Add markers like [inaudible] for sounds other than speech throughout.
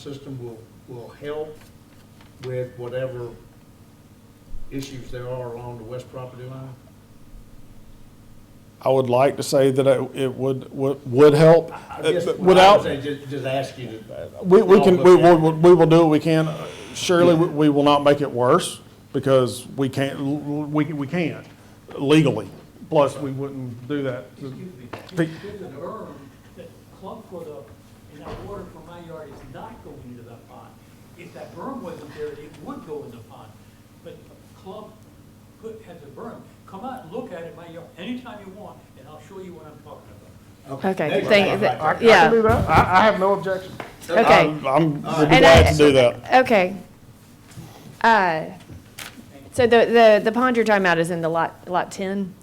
system will, will help with whatever issues there are along the west property line? I would like to say that it it would, would would help. I guess what I would Uh, Without, say, Just, just ask you to. we, we can, we Y'all look will, we will do what we can. Surely, we- we will not make it worse because we can't, we, we can't legally. Plus, we wouldn't do that. Excuse me, Pe- you did an urn that Clump put up, and that water from my yard is not going into that pond. If that berm wasn't there, it would go in the pond, but Clump put, has a berm. Come out and look at it, my yard, anytime you want, and I'll show you what I'm talking about. There Okay, you thank, go. Right there. th- I can do yeah, that. I, I have no objection. okay. I'm, I'm we'll be And glad I- to do that. Okay. Uh, So the, the, the pond you're talking about is in the lot, lot 10?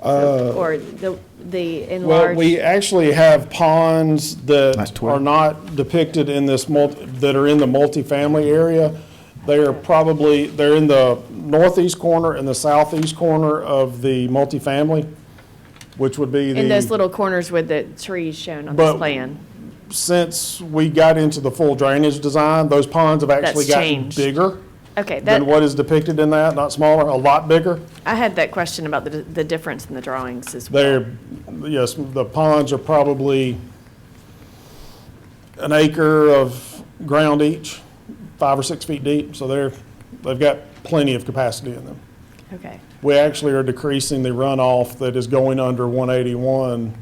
Or the, the Uh, Well, we enlarged? actually have ponds That's that 12. are not depicted in this multi, that are in the multifamily area. They are probably, they're in the northeast corner and the southeast corner of the multifamily, which would be the. In those little corners with the trees shown on this But- plan? Since we got into the full drainage design, those ponds have actually That's gotten changed. bigger Okay, than that, what is depicted in that, not smaller, a lot bigger. I had that question about the, the difference in the drawings as well. They're, yes, the ponds are probably an acre of ground each, five or six feet deep, so they're, they've got plenty of capacity in them. Okay, We actually are decreasing the runoff that is going under 181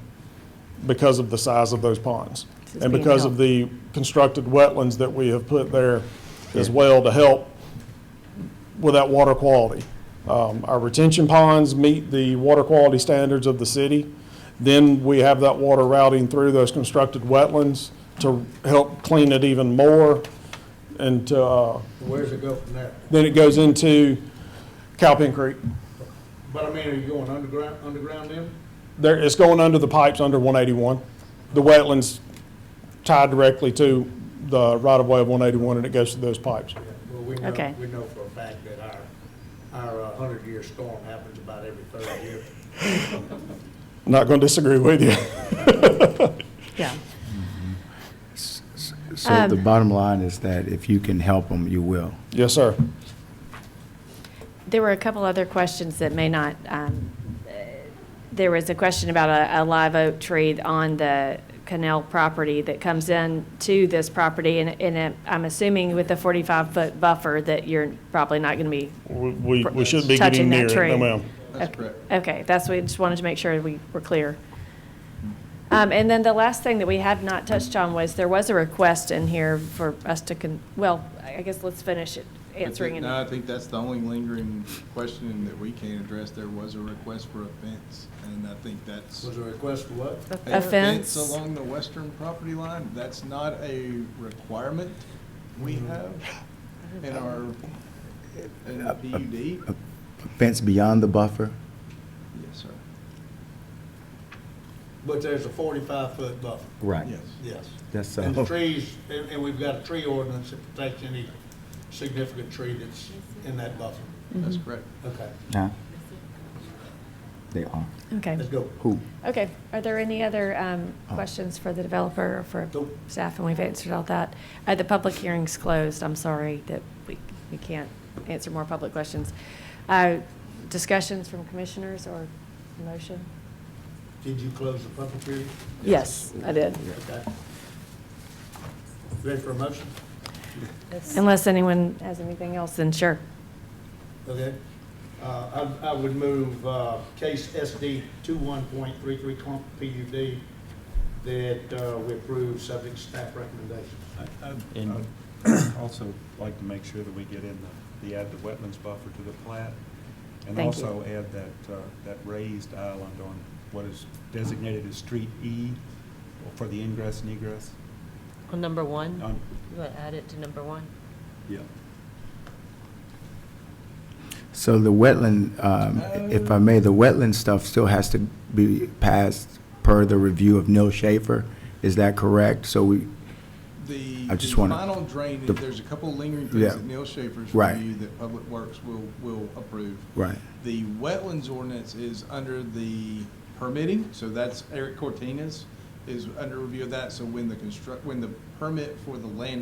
because of the size of those ponds. This is And being because of the constructed wetlands that we have put there as well to help with that water quality. Um, Our retention ponds meet the water quality standards of the city. Then we have that water routing through those constructed wetlands to help clean it even more and to, uh, Where's it go from there? then it goes into Cowpen Creek. But I mean, are you going underground, underground then? There, it's going under the pipes under 181. The wetlands tied directly to the right-of-way of 181, and it goes to those pipes. Well, we know, Okay. we know for a fact that our, our hundred-year storm happens about every third year. Not going to disagree with you. yeah. So the bottom line is that if you can help them, you will. [laughs] Yes, sir. There were a couple other questions that may not, um, uh, there was a question about a, a live oak tree on the canal property that comes in to this property, and, and it- I'm assuming with the 45-foot buffer that you're probably not going to be We- We, we shouldn't be touching getting near that it. tree. No, ma'am. That's correct. Okay, Uh, that's, we just wanted to make sure we were clear. Um, And then the last thing that we had not touched on was, there was a request in here for us to, con well, I guess let's finish it, Uh, I answering think- it. No, I think that's the only lingering question that we can address. There was a request for a fence, and I think that's. Was there a request for what? A fence? Along the western property line, that's not a requirement we Mm-hmm. have in our, in E the PUD. uh, Yes, Fence beyond the buffer? sir. But there's a forty-five foot buffer, Right. Yes. Mm-hmm. yes. That's And the all. trees, and, and we've got a tree ordinance that protects any significant tree that's in that buffer. That's correct. Okay, Huh? They are. Okay. let's go. Who? Okay, are there any other um, questions for the developer or for Nope. staff? And we've answered all that. Uh, The public hearing's closed, I'm sorry that we, we can't answer more public questions. Uh, Discussions from commissioners or motion? Did you close the public hearing? Yes, I did. Okay. Ready for a motion? Unless anyone has anything else, then sure. Okay. Uh, I, I would move, uh, case SD two one point three three clump PUD that, uh, we approve subject to staff recommendations. I- And- I'd I'd also like to make sure that we get in the, the add the wetlands buffer to the plat. And Thank you. also add that, uh, that raised island on what is designated as Street E for the ingress and egress. On number one? On- You want to add it to number one? Yeah. So the wetland, um, if I may, the wetland stuff still has to be passed per the review of Neil Schaefer. Is that correct? So we, The I just the wanna- Final drainage, the- there's a couple lingering Yeah. things that Neil Schaefer's Right. review that Public Works will, will approve. right. The wetlands ordinance is under the permitting, so that's Eric Cortina's. is under review of that, so when the construct, when the permit for the land